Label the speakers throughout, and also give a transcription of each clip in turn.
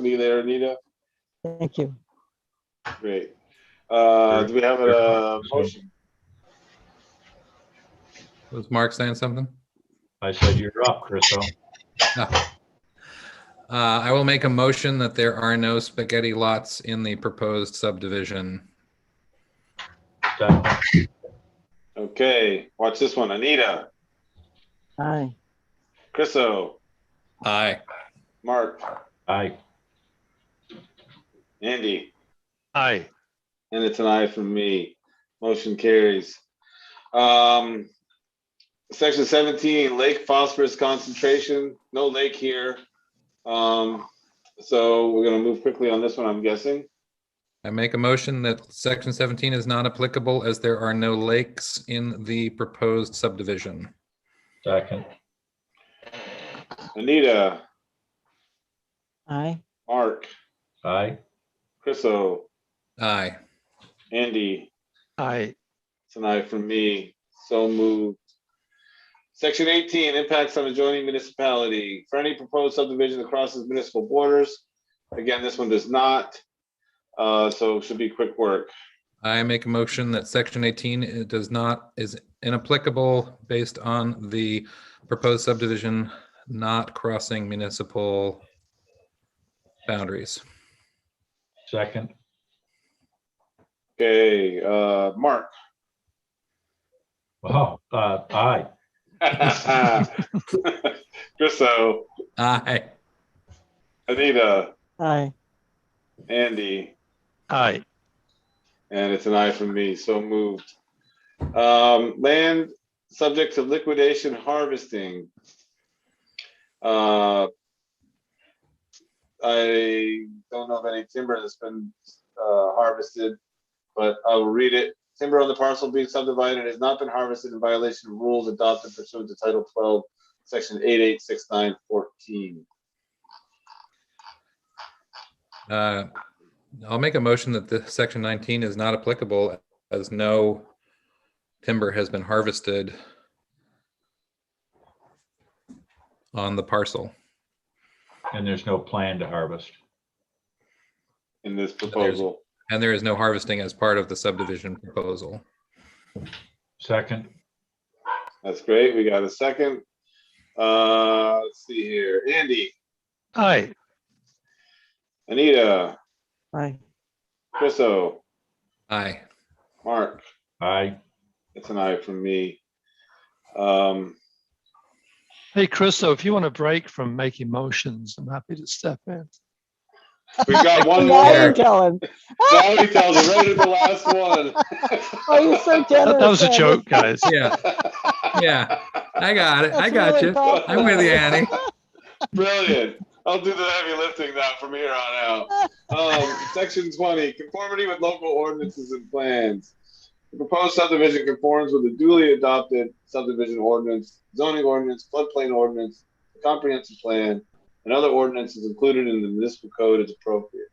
Speaker 1: me there, Anita.
Speaker 2: Thank you.
Speaker 1: Great. Uh, do we have a motion?
Speaker 3: Was Mark saying something?
Speaker 4: I said, you're up, Chriso.
Speaker 3: Uh, I will make a motion that there are no spaghetti lots in the proposed subdivision.
Speaker 4: Second.
Speaker 1: Okay, watch this one. Anita,
Speaker 2: Aye.
Speaker 1: Chriso,
Speaker 3: Aye.
Speaker 1: Mark,
Speaker 4: Aye.
Speaker 1: Andy,
Speaker 5: Aye.
Speaker 1: and it's an aye from me. Motion carries. Um, section seventeen, lake phosphorus concentration, no lake here. Um, so we're gonna move quickly on this one, I'm guessing.
Speaker 3: I make a motion that section 17 is not applicable as there are no lakes in the proposed subdivision.
Speaker 4: Second.
Speaker 1: Anita,
Speaker 2: Aye.
Speaker 1: Mark,
Speaker 4: Aye.
Speaker 1: Chriso,
Speaker 3: Aye.
Speaker 1: Andy,
Speaker 5: Aye.
Speaker 1: tonight from me. So moved. Section eighteen, impacts on adjoining municipality. For any proposed subdivision that crosses municipal borders. Again, this one does not. Uh, so should be quick work.
Speaker 3: I make a motion that section 18 it does not, is inapplicable based on the proposed subdivision not crossing municipal boundaries.
Speaker 4: Second.
Speaker 1: Okay, uh, Mark.
Speaker 4: Oh, uh, aye.
Speaker 1: Chriso,
Speaker 3: Aye.
Speaker 1: Anita,
Speaker 2: Aye.
Speaker 1: Andy,
Speaker 5: Aye.
Speaker 1: and it's an eye from me. So moved. Um, land subject to liquidation harvesting. Uh, I don't know of any timber that's been uh, harvested, but I will read it. Timber on the parcel being subdivided has not been harvested in violation of rules adopted pursuant to Title 12, Section 886914.
Speaker 3: Uh, I'll make a motion that the section 19 is not applicable as no timber has been harvested on the parcel.
Speaker 4: And there's no plan to harvest.
Speaker 1: In this proposal,
Speaker 3: And there is no harvesting as part of the subdivision proposal.
Speaker 4: Second.
Speaker 1: that's great. We got a second. Uh, let's see here. Andy,
Speaker 5: Aye.
Speaker 1: Anita,
Speaker 2: Aye.
Speaker 1: Chriso,
Speaker 3: Aye.
Speaker 1: Mark,
Speaker 4: Aye.
Speaker 1: it's an eye from me. Um,
Speaker 5: Hey, Chris, so if you want a break from making motions, I'm happy to step in.
Speaker 1: we've got one
Speaker 2: Now you
Speaker 1: more.
Speaker 2: tell him.
Speaker 1: Zoe tells it right at the last one.
Speaker 2: Oh, you're so generous.
Speaker 5: That that was a
Speaker 2: Andy.
Speaker 5: joke, guys.
Speaker 3: Yeah, yeah. I got it. I
Speaker 2: That's
Speaker 3: got
Speaker 2: really
Speaker 3: you.
Speaker 2: thoughtful.
Speaker 3: I'm with you, Annie.
Speaker 1: Brilliant. I'll do the heavy lifting now from here on out. Um, section twenty, conformity with local ordinances and plans. The proposed subdivision conforms with the duly adopted subdivision ordinance, zoning ordinance, floodplain ordinance, the comprehensive plan, and other ordinances included in the municipal code as appropriate.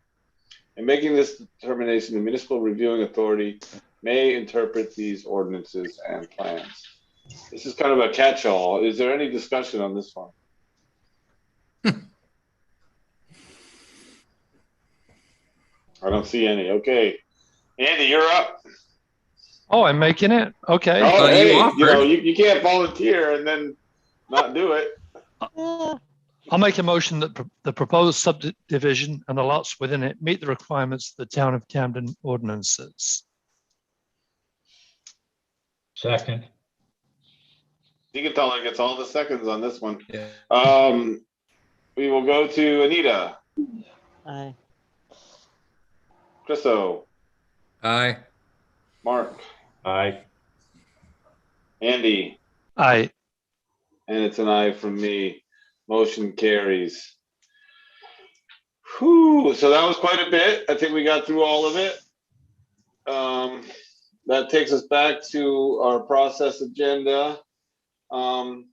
Speaker 1: In making this determination, the municipal reviewing authority may interpret these ordinances and plans. This is kind of a catch-all. Is there any discussion on this one? I don't see any. Okay. Andy, you're up.
Speaker 5: Oh, I'm making it? Okay.
Speaker 1: Oh,
Speaker 3: thought you
Speaker 1: hey, you
Speaker 3: offered.
Speaker 1: know, you, you can't volunteer and then not do it.
Speaker 2: Yeah.
Speaker 5: I'll make a motion that pro- the proposed subdivision and the lots within it meet the requirements of the Town of Camden ordinances.
Speaker 4: Second.
Speaker 1: You can tell it gets all the seconds on this one.
Speaker 3: Yeah.
Speaker 1: Um, we will go to Anita,
Speaker 2: Aye.
Speaker 1: Chriso,
Speaker 3: Aye.
Speaker 1: Mark,
Speaker 4: Aye.
Speaker 1: Andy,
Speaker 5: Aye.
Speaker 1: and it's an aye from me. Motion carries. Whew, so that was quite a bit. I think we got through all of it. Um, that takes us back to our process agenda. Um,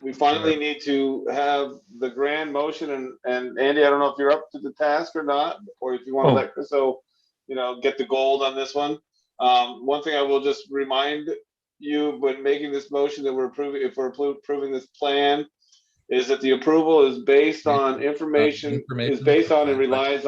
Speaker 1: we finally need to have the grand motion and, and Andy, I don't know if you're up to the task or not, or if you want to
Speaker 5: Oh.
Speaker 1: let, so, you know, get the gold on this one. Um, one thing I will just remind you, when making this motion that we're approving, if we're appro- approving this plan,
Speaker 3: is that the approval is based on information, is
Speaker 1: Information.
Speaker 3: based on and relies